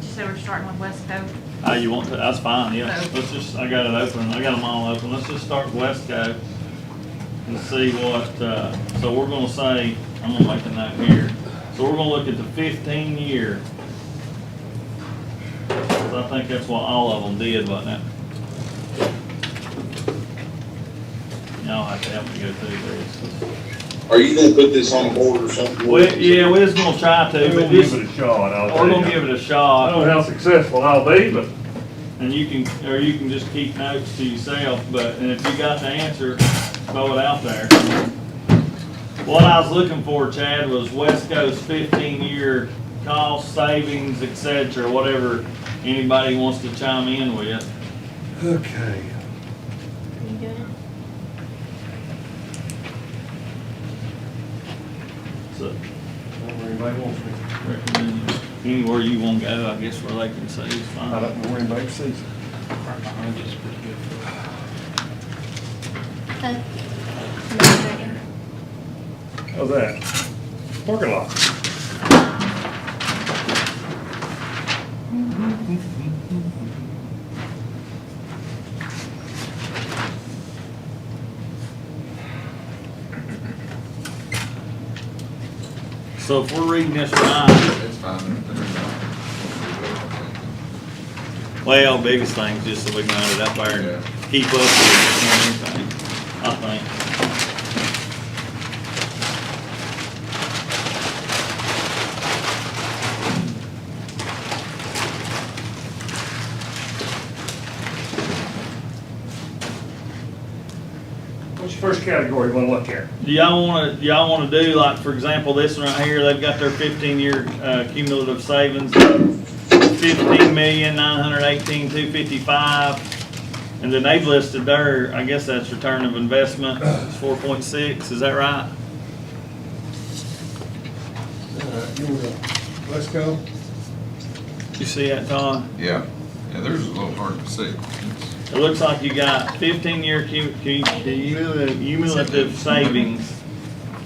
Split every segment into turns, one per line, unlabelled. said we're starting with West Coast.
Oh, you want to, that's fine, yeah.
No.
Let's just, I got it open, I got them all open. Let's just start Wesco and see what, uh, so we're gonna say, I'm gonna make a note here. So we're gonna look at the fifteen year. 'Cause I think that's what all of them did, wasn't it? Y'all have to help me go through this.
Are you gonna put this on board or something?
We, yeah, we're just gonna try to,
We're
but
gonna
this,
give it a shot, I'll tell
we're
you.
gonna give it a
I don't
shot.
know how successful I'll be, but
And you can, or you can just keep notes to yourself, but, and if you got the answer, throw it out there. What I was looking for, Chad, was Wesco's fifteen-year cost savings, et cetera, whatever anybody wants to chime in with.
Okay.
You good?
So,
Everybody wants me.
recommend anywhere you wanna go, I guess where they can see is
I
fine.
don't know where anybody sees it.
Huh? No,
how's that? Parking lot.
So if we're reading this right,
It's fine.
Well, biggest thing is just so we can line it up there and keep up with everything, I think.
What's your first category you wanna look at?
Do y'all wanna, do y'all wanna do, like, for example, this one right here, they've got their fifteen-year, uh, cumulative savings of fifteen million, nine hundred eighteen, two fifty-five. And then they've listed their, I guess that's return of investment, four point six, is that right?
Uh, Here we go. Let's go.
You see that, Todd?
Yeah, yeah, theirs is a little hard to see.
It looks like you got fifteen-year cum- cum- cumulative cumulative savings,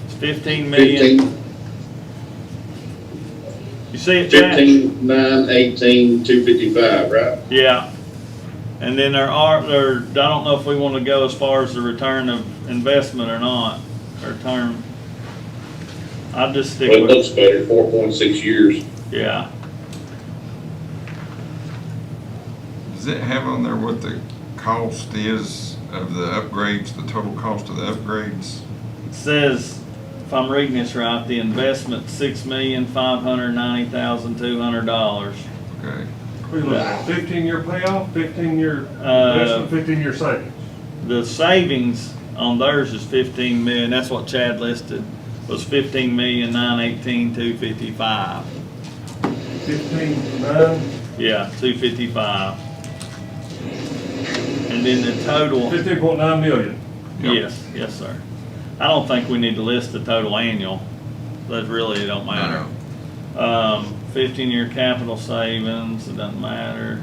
It's fifteen million.
Fifteen,
You see it, Chad?
fifteen, nine, eighteen, two fifty-five, right?
Yeah. And then there are, there, I don't know if we wanna go as far as the return of investment or not, or term. I'd just stick
Well, it
with,
looks better, four point six years.
yeah.
Does it have on there what the cost is of the upgrades, the total cost of the upgrades?
It Says, if I'm reading this right, the investment, six million, five hundred ninety thousand, two hundred dollars.
Okay,
We look at fifteen-year payoff, fifteen-year
Uh,
investment, fifteen-year savings.
The savings on theirs is fifteen million, that's what Chad listed, was fifteen million, nine eighteen, two fifty-five.
Fifteen, nine,
Yeah, two fifty-five. And then the total.
fifteen point nine million.
Yep.
Yes, yes, sir. I don't think we need to list the total annual. That really don't matter. Um, fifteen-year capital savings, it doesn't matter.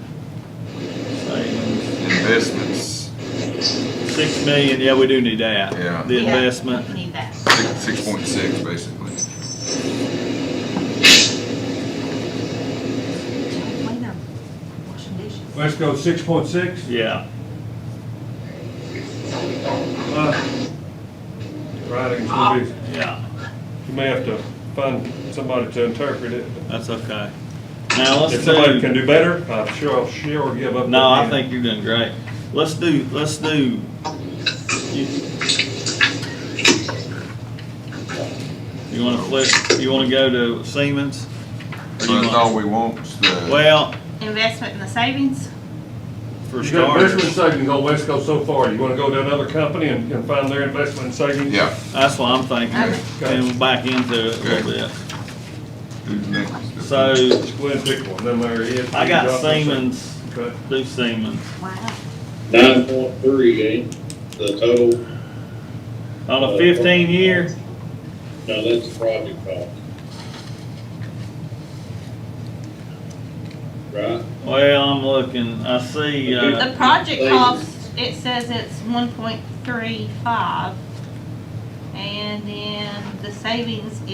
Savings,
Investments,
six million, yeah, we do need that.
Yeah.
The
Yeah,
investment.
you Need that.
six, six point six basically.
Clean up, washing dishes.
Let's go six point six.
Yeah,
Uh, Writing's gonna be,
yeah,
you may have to find somebody to interpret it.
that's okay. Now, let's
If somebody can
do,
do better, I'm sure I'll share or give up.
no, I
the-
think you're doing great. Let's do, let's do. You you wanna flip, you wanna go to Siemens? Or
So
you
that's
want-
all we want, is the,
Well,
Investment in the savings?
for
You got investment
starters,
savings on West Coast so far, you wanna go to another company and, and find their investment savings?
yeah,
that's what I'm thinking,
Okay.
and we'll back into it a little bit.
who's next?
So,
Just go ahead and pick one, then there it is.
I got
Drop this in.
Siemens,
Okay.
do Siemens.
Wow.
Nine point three, ain't the total,
On a fifteen year,
no, that's the project cost. Right?
well, I'm looking, I see, uh,
The project
Savings.
cost, it says it's one point three five. And then the savings